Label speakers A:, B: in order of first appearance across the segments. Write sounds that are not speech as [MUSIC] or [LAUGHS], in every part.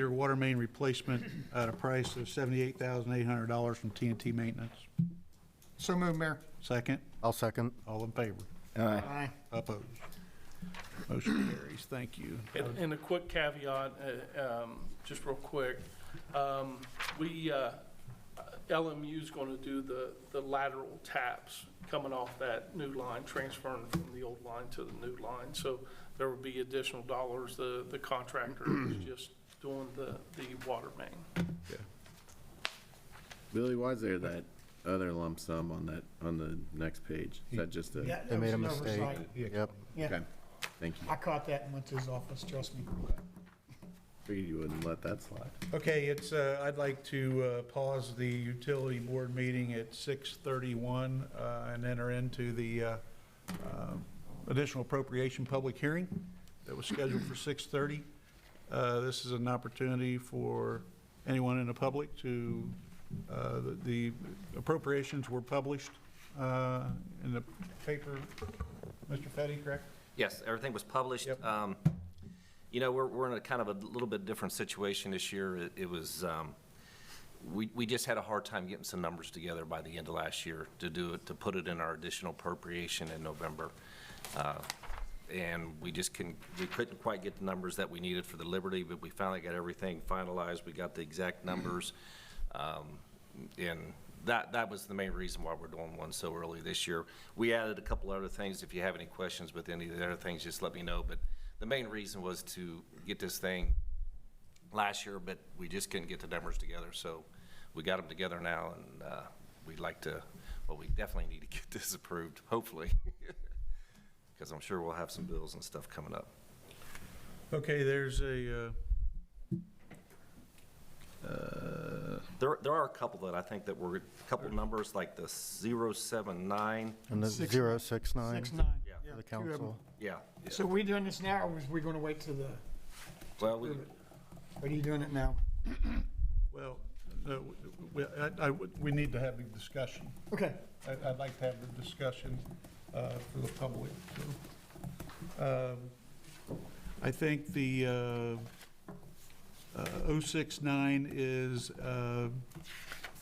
A: Your water main replacement at a price of seventy-eight thousand eight hundred dollars from TNT Maintenance.
B: So moved, Mayor.
A: Second,
C: I'll second.
A: all in favor?
C: Aye.
B: Aye.
A: Opposed? Motion carries. Thank you.
D: And, and a quick caveat, uh, um, just real quick, um, we, uh, LMU's gonna do the, the lateral taps coming off that new line, transferring from the old line to the new line, so there will be additional dollars, the, the contractor is just doing the, the water main.
E: Billy, why is there that other lump sum on that, on the next page? Is that just a?
C: They made a mistake. Yep.
B: Yeah,
E: Okay, Thank you.
B: I caught that and went to his office, trust me.
E: Figured you wouldn't let that slide.
A: Okay, it's, uh, I'd like to uh, pause the utility board meeting at 6:31 uh, and enter into the uh, um, additional appropriation public hearing that was scheduled for 6:30. Uh, This is an opportunity for anyone in the public to, uh, the the appropriations were published uh, in the paper, Mr. Petty, correct?
F: Yes, everything was published.
A: Yep.
F: Um, You know, we're, we're in a kind of a little bit different situation this year. It- It was, um, we, we just had a hard time getting some numbers together by the end of last year to do it, to put it in our additional appropriation in November. Uh, And we just couldn't, we couldn't quite get the numbers that we needed for the Liberty, but we finally got everything finalized. We got the exact numbers. Um, And that, that was the main reason why we're doing one so early this year. We added a couple other things. If you have any questions with any of the other things, just let me know. But the main reason was to get this thing last year, but we just couldn't get the numbers together, so we got them together now, and uh, we'd like to, well, we definitely need to get [LAUGHS] this approved, hopefully, [LAUGHS] because I'm sure we'll have some bills and stuff coming up.
A: Okay, there's a, uh, uh,
F: There, there are a couple that I think that were, a couple numbers like the 079,
C: And the
B: Six-
C: zero six nine
B: Six, nine.
F: Yeah.
C: for the
B: two of 'em.
C: council.
F: yeah. yeah.
B: So we doing this now, or was we gonna wait till the,
F: Well, we,
B: are you doing it now?
A: well, no, we- I- I- we need to have a discussion.
B: Okay,
A: I- I'd like to have the discussion uh, for the public. so. Um, I think the uh, uh, 069 is, uh,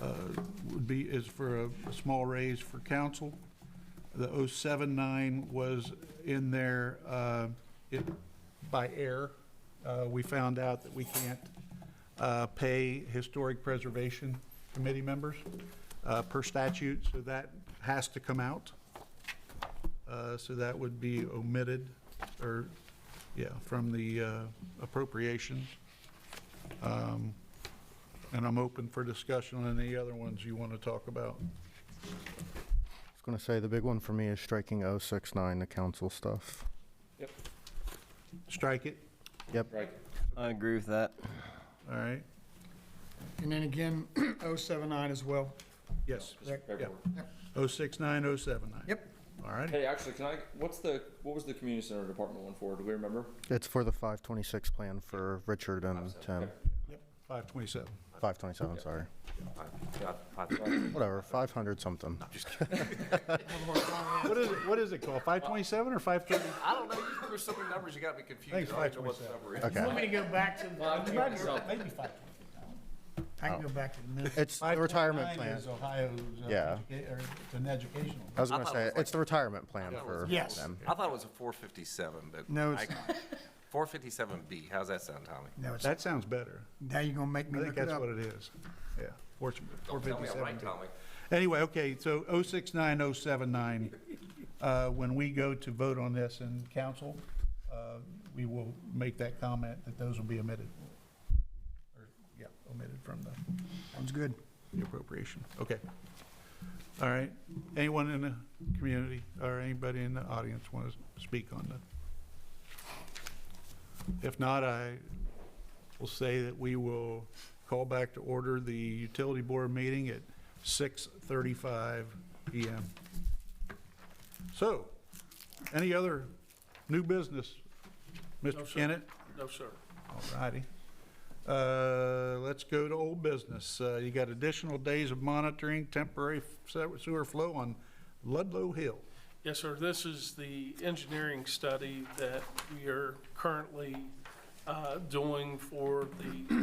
A: uh, would be, is for a a small raise for council. The 079 was in there uh, it- by air. Uh, We found out that we can't uh, pay Historic Preservation Committee members uh, per statute, so that has to come out. Uh, So that would be omitted, or, yeah, from the uh, appropriations. Um, And I'm open for discussion on any other ones you want to talk about.
C: I was gonna say, the big one for me is striking oh six nine, the council stuff.
A: Strike it,
C: Yep.
G: I agree with that.
A: all right?
B: and then again, [CLEARS THROAT] 079 as well.
A: Yes.
B: correct?
A: Yeah. Oh, 069, 079.
B: Yep.
A: All right,
G: Hey, actually, can I? What's the? What was the community center department one for? Do we remember?
C: It's for the five twenty-six plan for Richard and Tim.
A: 527.
C: Five twenty-seven, sorry.
F: I- yeah, I-
C: Whatever, five hundred something.
A: What is it, what is it called, 527 or 530?
F: I don't know, you- there were so many numbers, you got me
A: Thanks,
F: confused. I don't know what the
A: 527.
F: number is.
C: Okay.
B: Want me to go back to,
G: Well, I'm trying to sell-
A: Maybe 527.
B: I can go back to the minutes.
C: It's the retirement
A: 529
C: plan.
A: is Ohio's, uh,
C: Yeah.
A: educa- or it's an educational.
C: I was
F: I
C: gonna
F: thought it
C: say,
F: was like-
C: it's the retirement plan for
B: Yes.
C: them.
F: I thought it was a 457, but.
B: No, it's
F: I- 457B, how's that sound, Tommy?
B: No, it's,
A: That sounds better.
B: now you're gonna make
A: I
B: me
A: think
B: look it
A: that's
B: up.
A: what it is. Yeah, fortunately,
F: Don't tell me I'm right,
A: 457.
F: Tommy.
A: Anyway, okay, so 069, 079, uh, when we go to vote on this in council, uh, we will make that comment that those will be omitted. Or, Yeah, omitted from the
B: Sounds good.
A: the appropriation. Okay. All right. Anyone in the community or anybody in the audience want to speak on that? If not, I will say that we will call back to order the utility board meeting at 6:35 PM. So, any other new business?
D: No,
A: Mr.
D: sir.
A: Kennett?
D: No, sir.
A: All righty. Uh, Let's go to old business. Uh, You got additional days of monitoring temporary se- sewer flow on Ludlow Hill.
D: Yes, sir. This is the engineering study that we are currently uh, doing for the